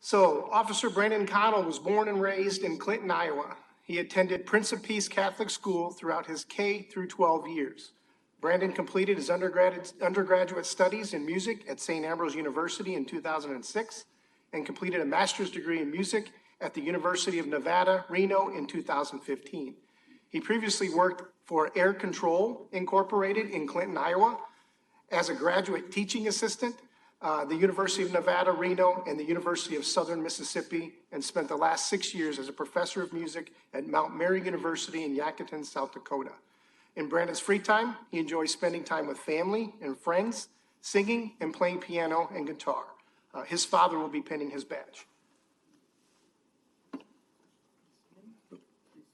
So Officer Brandon Connell was born and raised in Clinton, Iowa. He attended Prince of Peace Catholic School throughout his K through 12 years. Brandon completed his undergraduate, undergraduate studies in music at St. Ambrose University in 2006 and completed a master's degree in music at the University of Nevada, Reno in 2015. He previously worked for Air Control Incorporated in Clinton, Iowa, as a graduate teaching assistant, uh, the University of Nevada, Reno, and the University of Southern Mississippi, and spent the last six years as a professor of music at Mount Mary University in Yakutin, South Dakota. In Brandon's free time, he enjoys spending time with family and friends, singing and playing piano and guitar. Uh, his father will be pinning his badge.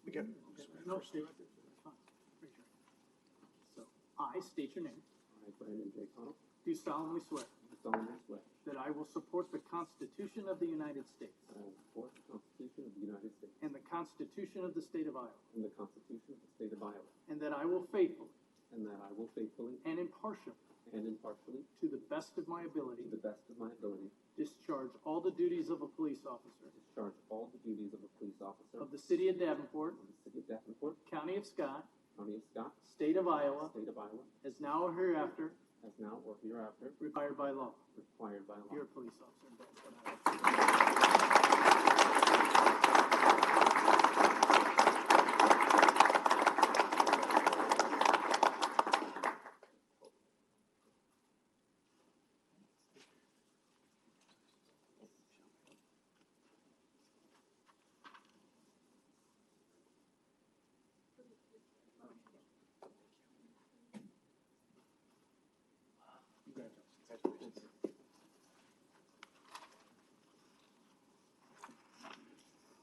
We got- No, stay right there. That's fine. Raise your hand. So, I state your name, I, Brandon J. Connell, do solemnly swear do solemnly swear that I will support the Constitution of the United States that I will support the uh, Constitution of the United States and the Constitution of the State of Iowa, and the Constitution of the State of Iowa, and that I will faithfully and that I will faithfully and impartially, and impartially, to the best of my ability, to the best of my ability, discharge all the duties of a police officer discharge all the duties of a police officer of of the City of Davenport, the City of Davenport, County of Scott, County of Scott, State of Iowa, State of Iowa, as now or hereafter as now or hereafter required by law. required by law. You're a police officer in Davenport, Iowa.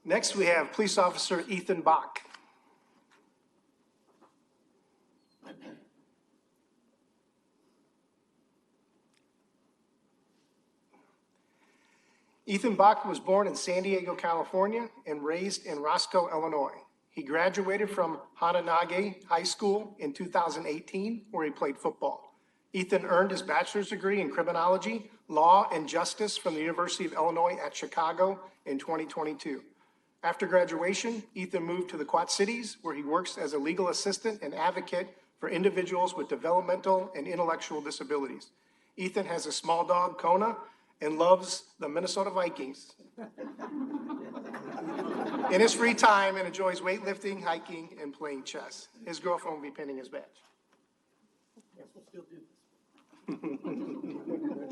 Next, we have Police Officer Ethan Bach. Ethan Bach was born in San Diego, California, and raised in Roscoe, Illinois. He graduated from Hananage High School in 2018, where he played football. Ethan earned his bachelor's degree in criminology, law, and justice from the University of Illinois at Chicago in 2022. After graduation, Ethan moved to the Quad Cities, where he works as a legal assistant and advocate for individuals with developmental and intellectual disabilities. Ethan has a small dog, Kona, and loves the Minnesota Vikings. In his free time, and enjoys weightlifting, hiking, and playing chess. His girlfriend will be pinning his badge.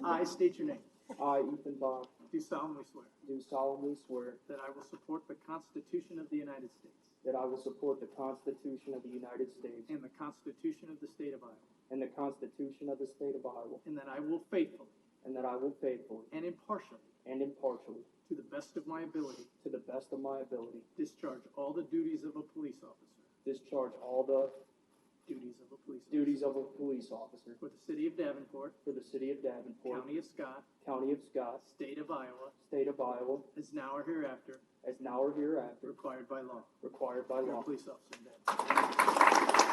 I state your name, I, Ethan Bach, do solemnly swear do solemnly swear that I will support the Constitution of the United States that I will support the Constitution of the United States and the Constitution of the State of Iowa, and the Constitution of the State of Iowa, and that I will faithfully and that I will faithfully and impartially, and impartially, to the best of my ability, to the best of my ability, discharge all the duties of a police officer, discharge all the duties of a police officer duties of a police officer for the City of Davenport, for the City of Davenport, County of Scott, County of Scott, State of Iowa, State of Iowa, as now or hereafter as now or hereafter required by law. required by You're a law. police officer in Davenport.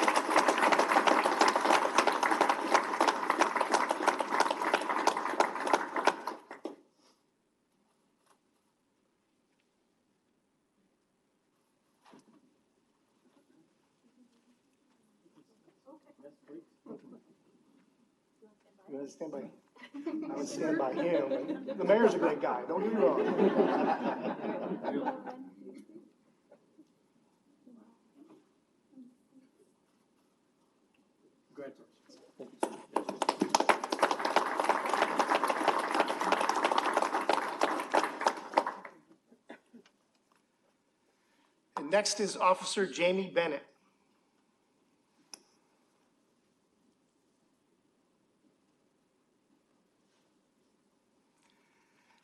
I'm gonna stand by, I would stand by him. The mayor's a great guy, don't get me wrong. Congratulations. And next is Officer Jamie Bennett.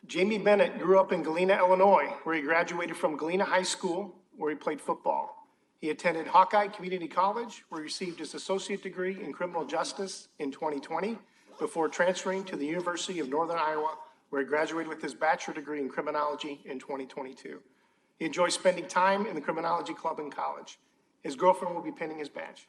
Jamie Bennett grew up in Galena, Illinois, where he graduated from Galena High School, where he played football. He attended Hawkeye Community College, where he received his associate degree in criminal justice in 2020, before transferring to the University of Northern Iowa, where he graduated with his bachelor degree in criminology in 2022. He enjoys spending time in the criminology club in college. His girlfriend will be pinning his badge.